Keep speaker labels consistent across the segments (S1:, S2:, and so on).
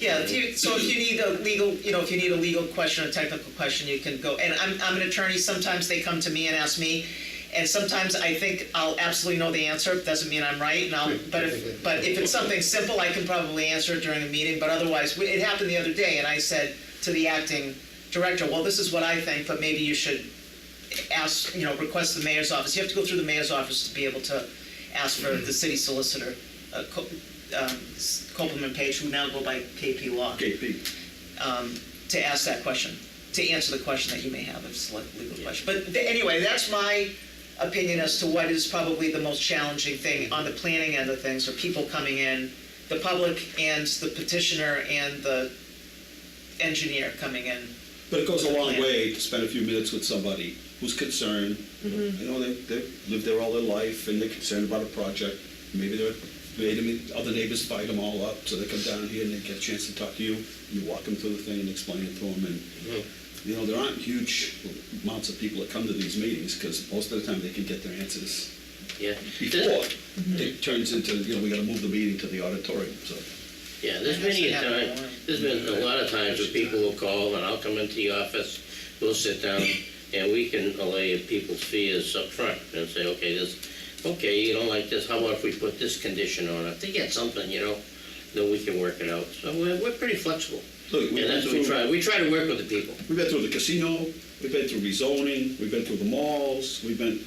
S1: Yeah, if you, so if you need a legal, you know, if you need a legal question or technical question, you can go, and I'm, I'm an attorney, sometimes they come to me and ask me, and sometimes I think I'll absolutely know the answer, doesn't mean I'm right, and I'll, but if, but if it's something simple, I can probably answer it during a meeting, but otherwise, it happened the other day, and I said to the acting director, well, this is what I think, but maybe you should ask, you know, request the mayor's office, you have to go through the mayor's office to be able to ask for the city solicitor, uh, Co- um, Copeland Page, who now go by KP Law,
S2: KP.
S1: um, to ask that question, to answer the question that you may have, if it's a le- legal question. But th- anyway, that's my opinion as to what is probably the most challenging thing on the planning end of things, are people coming in, the public and the petitioner and the engineer coming in.
S2: But it goes a long way to spend a few minutes with somebody who's concerned.
S3: Mm-hmm.
S2: You know, they, they've lived there all their life and they're concerned about a project. Maybe they're, maybe the other neighbors fight them all up, so they come down here and they get a chance to talk to you. You walk them through the thing and explain it to them and,
S3: Mm-hmm.
S2: you know, there aren't huge amounts of people that come to these meetings because most of the time they can get their answers
S3: Yeah.
S2: before
S3: Mm-hmm.
S2: it turns into, you know, we gotta move the meeting to the auditorium, so.
S3: Yeah, there's many a time, there's been a lot of times where people will call and I'll come into the office, we'll sit down and we can allay people's fears up front and say, okay, this, okay, you don't like this, how about if we put this condition on it? To get something, you know, then we can work it out. So we're, we're pretty flexible.
S2: Look, we
S3: And that's what we
S2: went through-
S3: try, we try to work with the people.
S2: We've been through the casino, we've been through rezoning, we've been through the malls, we've been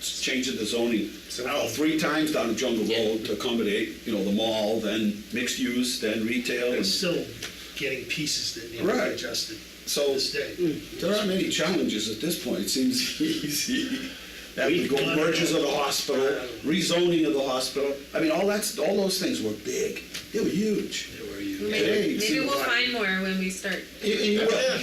S2: changing the zoning. Now, three times down the Jungle
S3: Yeah.
S2: Road to accommodate, you know, the mall, then mixed use, then retail.
S4: They're
S2: and-
S4: still getting pieces that need to be
S2: Right.
S4: adjusted
S2: So mm,
S4: this day.
S2: there aren't any challenges at this point, it seems easy. That we go
S4: We've gone-
S2: mergers of the hospital, rezoning of the hospital, I mean, all that's, all those things were big, they were huge. Hey,
S5: Maybe,
S2: see
S5: maybe we'll
S2: what-
S5: find more when we start.
S2: You- you-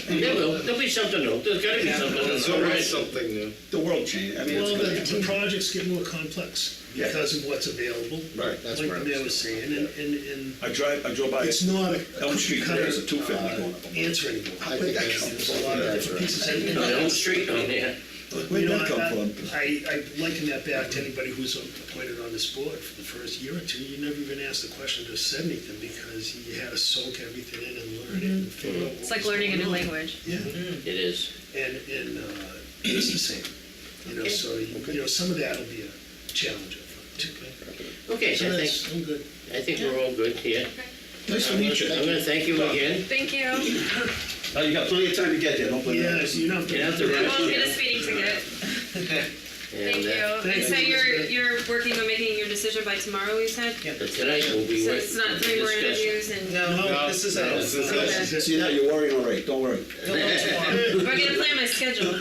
S3: There will, there'll be something new, there's gotta be something new.
S6: There's always something new.
S2: The world changed, I mean, it's
S4: Well,
S2: gonna
S4: the, the
S2: happen.
S4: projects get more complex
S2: Yeah.
S4: because of what's available.
S2: Right,
S6: that's
S4: Like
S6: where
S4: the
S6: I
S4: mayor
S6: was
S4: was saying, and, and, and
S2: I drive, I drove by.
S4: it's not a
S2: Elm
S4: cookie
S2: Street,
S4: cutter
S2: there's a two-family going up.
S4: answer anymore.
S6: I think that's-
S4: There's a lot of different pieces. that-
S3: On the old street on there.
S2: Where'd
S4: You know,
S2: that
S4: I-
S2: come from?
S4: I, I liken that back to anybody who's appointed on this board for the first year or two. You never even asked the question or said anything because you had to soak everything in and learn it and
S2: Mm-hmm.
S4: figure out what
S5: It's like
S4: was
S5: learning a
S4: going
S5: new
S4: on.
S5: language.
S4: Yeah,
S3: It is.
S4: and, and uh, it's the same. You know, so, you know, some of that will be a challenge. up front, too.
S3: Okay,
S4: So
S3: so I
S4: that's,
S3: think,
S4: I'm good.
S3: I think we're all good here.
S2: Nice to
S3: I'm
S2: meet you.
S3: gonna thank you again.
S5: Thank you. I
S2: Oh, you got plenty of time to get there, don't blame
S4: Yeah, so
S2: me.
S4: you don't have to.
S3: You have to
S5: won't get a
S3: rest.
S5: speeding ticket. Thank
S3: And,
S5: you.
S3: uh,
S5: And so
S4: Thank you,
S5: you're,
S4: Elizabeth.
S5: you're working on making your decision by tomorrow, you said?
S1: Yeah.
S3: But tonight will be
S5: So
S3: worth
S5: it's not three more
S3: discussion.
S5: interviews and we're
S1: No, this is
S6: No, this is it.
S1: it.
S5: Okay.
S2: See, now you're worrying already, don't worry.
S1: Tomorrow.
S5: gonna plan my schedule.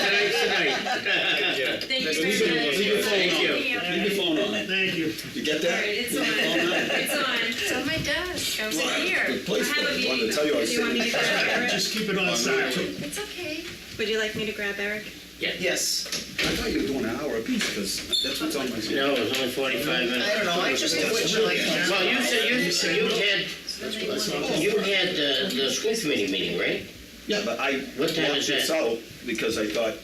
S3: Tonight,
S5: Thank you very much.
S2: Leave your phone
S3: Thank
S2: on.
S5: you.
S2: Leave your phone on.
S4: Thank you.
S2: You get
S5: All
S2: that?
S5: right, it's on. It's on. It's on my desk. I was in here.
S2: Good place,
S5: I have
S2: though.
S5: a
S2: Wanted to
S5: meeting.
S2: tell you I
S5: Do you want me to grab Eric?
S4: Just keep it on silent.
S5: It's okay. Would you like me to grab Eric?
S3: yeah.
S1: Yes,
S2: I thought you were doing an hour apiece, because that's what's on my schedule.
S3: No, it was only forty-five
S1: I
S3: minutes.
S1: don't know, I just did what you like.
S3: Well, you said, you, you had, you had uh, the school committee meeting, right?
S2: Yeah, but I
S3: What
S2: blocked
S3: time is
S2: this
S3: that?
S2: out, because I thought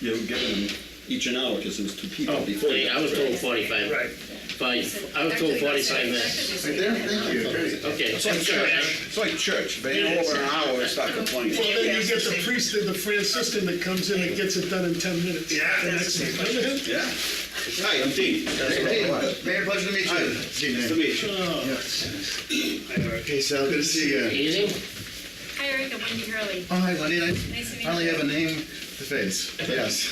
S2: you were giving them each an hour, because it was two people
S3: Oh,
S2: before. you
S3: I
S2: got
S3: was
S2: there.
S3: told forty-five.
S4: Right.
S3: Five, I was told forty-five minutes.
S2: Right there, thank you.
S3: Okay, I'm
S2: It's like
S3: sorry.
S2: church, it's like church, they over an hour and start complaining.
S4: Well, then you get the priest and the Franciscan that comes in and gets it done in 10 minutes. Yeah.
S2: Yeah. Hi, I'm Dean.
S6: Mayor, pleasure to meet you.
S2: Nice to meet you.
S6: Okay, so good to see you.
S3: Easy?
S5: Hi, Eric. I'm Wendy Hurley.
S6: Oh, hi, Lenny. I
S5: Nice to meet you.
S6: finally have a name to face. Yes.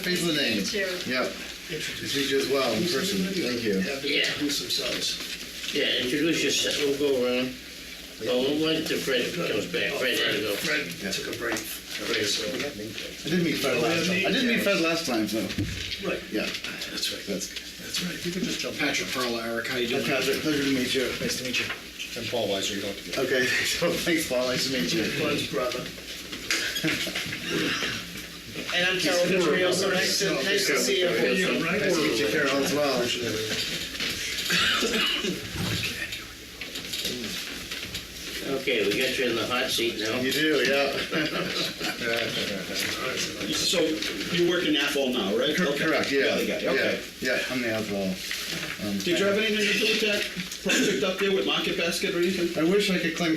S6: Face the name.
S5: Thank you.
S6: Yep. Nice to meet you as well in person. Thank you.
S4: Have them introduce themselves.
S3: Yeah, introduce yourself, we'll go around. Well, we'll wait till Fred comes back,
S4: Oh,
S3: Fred had to go.
S4: Fred Fred took a break.
S3: Fred, so-
S6: I didn't meet Fred last time. I didn't meet Fred last time, so,
S4: Right,
S6: yeah,
S4: that's right,
S6: that's good.
S4: that's right. You can just jump.
S7: Patrick Perla, Eric, how you
S6: Hi,
S7: doing?
S6: Patrick, pleasure to meet you.
S7: Nice to meet you. I'm Paul Weiser, you don't have to be.
S6: Okay, so thanks, Paul. Nice to meet you.
S4: Fred's brother.
S1: And I'm Carol Vitrio, so nice to, nice to see you.
S4: Yeah, right.
S6: Nice to meet you, Carol, as well.
S3: Okay, we got you in the hot seat now.
S6: You do, yeah.
S2: So you work in Athol now, right?
S6: Cor- Correct, yeah.
S2: Okay.
S6: Yeah, yeah, I'm the outlaw.
S2: Did you have anything to do with that?
S8: project up there with Market Basket or anything?
S2: I wish I could claim